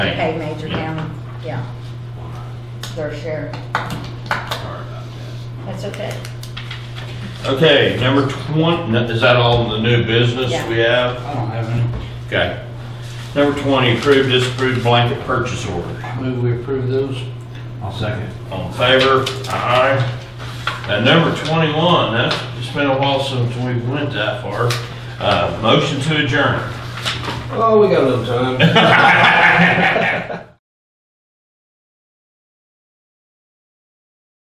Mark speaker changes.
Speaker 1: Thank
Speaker 2: Okay,
Speaker 1: you.
Speaker 2: major
Speaker 1: Yeah.
Speaker 2: county, yeah. Their share.
Speaker 1: Sorry about
Speaker 2: That's okay.
Speaker 1: that. Okay, number 20, no, is that all the new business
Speaker 2: Yeah.
Speaker 1: we have?
Speaker 3: I don't have any.
Speaker 1: Okay. Number 20, approve, disapprove blanket purchase order.
Speaker 3: Move we approve those. I'll second.
Speaker 1: All in favor? Aye. And number 21, that's, it's been a while since we went that far. Uh, Motion to adjourn.
Speaker 3: Oh, we got a little time.